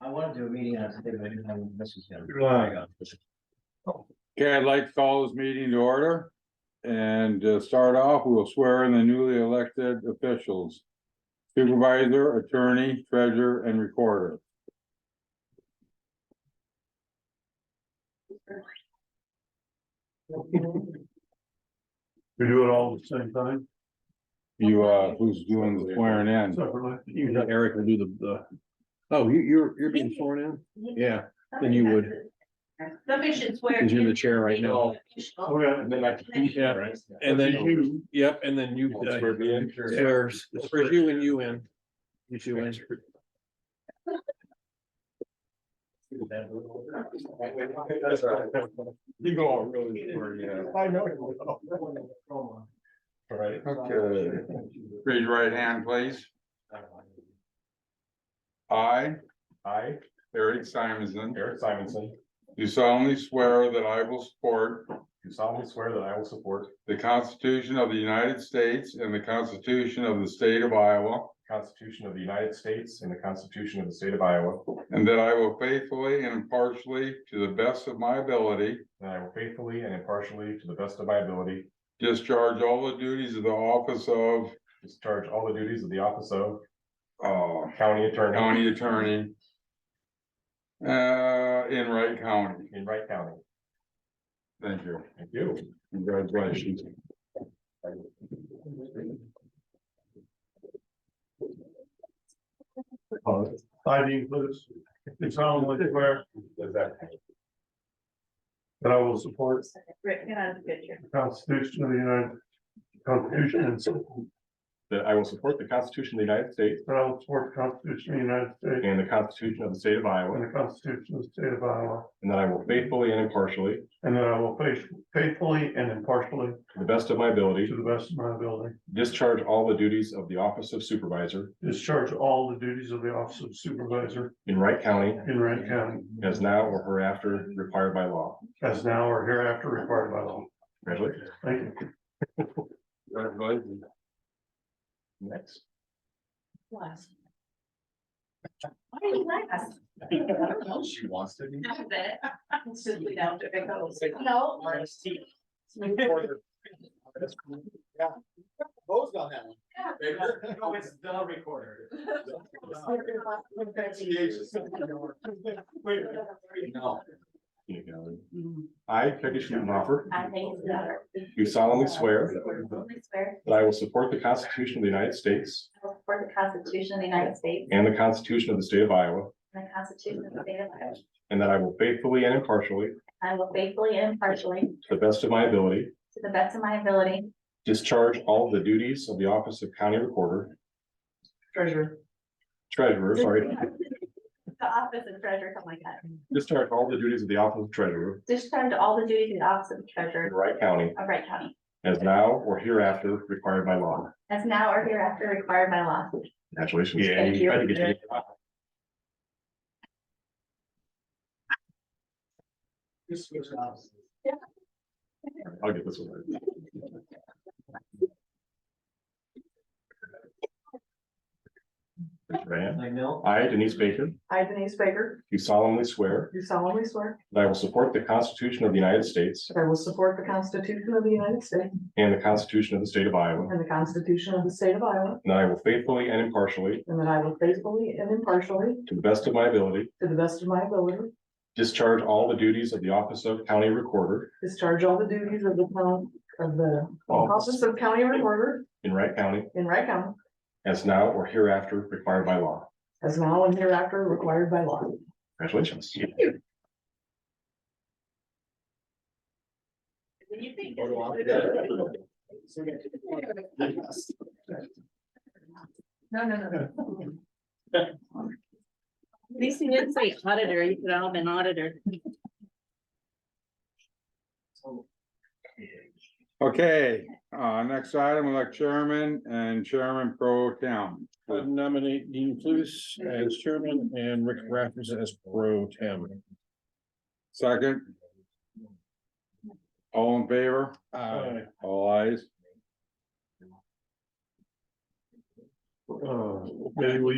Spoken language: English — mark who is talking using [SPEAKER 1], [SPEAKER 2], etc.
[SPEAKER 1] I wanted to do a meeting on Sunday, but I didn't have a message yet.
[SPEAKER 2] Relying on.
[SPEAKER 3] Okay, I'd like to call this meeting to order. And to start off, we'll swear in the newly elected officials. Supervisor, attorney, treasurer, and recorder.
[SPEAKER 2] We do it all at the same time,
[SPEAKER 3] You, uh, who's doing the swearing in?
[SPEAKER 2] separately.
[SPEAKER 4] Eric will do the, the, oh, you, you're, you're being sworn in? Yeah, Then you would.
[SPEAKER 5] Somebody should swear.
[SPEAKER 4] because you're the chair right now.
[SPEAKER 2] Oh, yeah.
[SPEAKER 4] Yeah, and then you, yep, and then you. uh, swear- swear you and you in. You two in.
[SPEAKER 2] You go on really. I know. Right.
[SPEAKER 3] Okay. Raise your right hand, please. I,
[SPEAKER 2] I,
[SPEAKER 3] Eric Simonson,
[SPEAKER 2] Eric Simonson,
[SPEAKER 3] do solemnly swear that I will support
[SPEAKER 2] do solemnly swear that I will support
[SPEAKER 3] the Constitution of the United States and the Constitution of the State of Iowa,
[SPEAKER 2] the Constitution of the United States and the Constitution of the State of Iowa,
[SPEAKER 3] and that I will faithfully and impartially, to the best of my ability,
[SPEAKER 2] and I will faithfully and impartially, to the best of my ability,
[SPEAKER 3] discharge all the duties of the office of
[SPEAKER 2] discharge all the duties of the office of
[SPEAKER 3] uh,
[SPEAKER 2] county attorney.
[SPEAKER 3] county attorney uh, in Wright County.
[SPEAKER 2] In Wright County.
[SPEAKER 3] Thank you.
[SPEAKER 2] Thank you.
[SPEAKER 3] Congratulations.
[SPEAKER 6] Uh,
[SPEAKER 2] I Dean Clutes, do solemnly swear. That I will support
[SPEAKER 5] Rick, get out of the picture.
[SPEAKER 2] the Constitution of the United, Constitution and. That I will support the Constitution of the United States.
[SPEAKER 6] That I will support the Constitution of the United States
[SPEAKER 2] And the Constitution of the State of
[SPEAKER 6] and
[SPEAKER 2] Iowa,
[SPEAKER 6] the Constitution of the State of Iowa,
[SPEAKER 2] and that I will faithfully and impartially,
[SPEAKER 6] and that I will faith- faithfully and impartially,
[SPEAKER 2] to the best of my ability,
[SPEAKER 6] to the best of my ability,
[SPEAKER 2] discharge all the duties of the Office of Supervisor
[SPEAKER 6] discharge all the duties of the office of supervisor
[SPEAKER 2] in Wright County
[SPEAKER 6] in Rankin County
[SPEAKER 2] as now or hereafter required by law.
[SPEAKER 6] as now or hereafter required by law.
[SPEAKER 2] Congratulations.
[SPEAKER 6] Thank you.
[SPEAKER 3] Congratulations.
[SPEAKER 2] Next.
[SPEAKER 5] Last. Why are you last?
[SPEAKER 2] She wants to be.
[SPEAKER 5] I bet. It's just we don't do it goes. No.
[SPEAKER 7] Closed on that one.
[SPEAKER 5] No, it's
[SPEAKER 7] the recorder. No.
[SPEAKER 2] You know, I, Peggy Schumacher,
[SPEAKER 5] I think it's better.
[SPEAKER 2] do solemnly swear
[SPEAKER 5] solemnly swear
[SPEAKER 2] that I will support the Constitution of the United States
[SPEAKER 5] I will support the Constitution of the United States
[SPEAKER 2] and the Constitution of the State of Iowa,
[SPEAKER 5] and the Constitution of the State of Iowa.
[SPEAKER 2] and that I will faithfully and impartially,
[SPEAKER 5] I will faithfully and impartially, to
[SPEAKER 2] to the best of my ability,
[SPEAKER 5] the best of my ability,
[SPEAKER 2] discharge all the duties of the Office of County Recorder,
[SPEAKER 5] treasure
[SPEAKER 2] Treasurer, sorry,
[SPEAKER 5] The office of treasurer, something like that.
[SPEAKER 2] discharge all the duties of the Office of Treasurer
[SPEAKER 5] Discharge all the duties of the office of
[SPEAKER 2] in
[SPEAKER 5] treasurer
[SPEAKER 2] Wright County
[SPEAKER 5] of Wright County,
[SPEAKER 2] as now or hereafter required by law.
[SPEAKER 5] as now or hereafter required by law.
[SPEAKER 2] Congratulations.
[SPEAKER 5] Thank
[SPEAKER 2] Tried
[SPEAKER 5] you.
[SPEAKER 2] to get you- I'll get this one. Raise your hand.
[SPEAKER 1] Like Mill?
[SPEAKER 2] I, Denise Baker,
[SPEAKER 5] I, Denise Baker,
[SPEAKER 2] do solemnly swear
[SPEAKER 5] do solemnly swear
[SPEAKER 2] that I will support the Constitution of the United States
[SPEAKER 5] that I will support the Constitution of the United States
[SPEAKER 2] and the Constitution of the State of Iowa,
[SPEAKER 5] and the Constitution of the State of Iowa,
[SPEAKER 2] and that I will faithfully and impartially,
[SPEAKER 5] and that I will faithfully and impartially,
[SPEAKER 2] to the best of my ability,
[SPEAKER 5] to the best of my ability,
[SPEAKER 2] discharge all the duties of the Office of County Recorder
[SPEAKER 5] discharge all the duties of the town, of the
[SPEAKER 2] Office
[SPEAKER 5] office of county recorder
[SPEAKER 2] in Wright County
[SPEAKER 5] in Wright County,
[SPEAKER 2] as now or hereafter required by law.
[SPEAKER 5] as now and hereafter required by law.
[SPEAKER 2] Congratulations.
[SPEAKER 5] No, no, no.
[SPEAKER 8] At least you didn't say auditor, you could all have been auditor.
[SPEAKER 3] Okay, uh, next item, elect chairman and chairman pro tem.
[SPEAKER 4] I Nominate Dean Cluse as chairman and Rick Raffers as pro tem.
[SPEAKER 3] Second. All in favor?
[SPEAKER 4] Uh,
[SPEAKER 3] All eyes.
[SPEAKER 6] Uh, Maybe we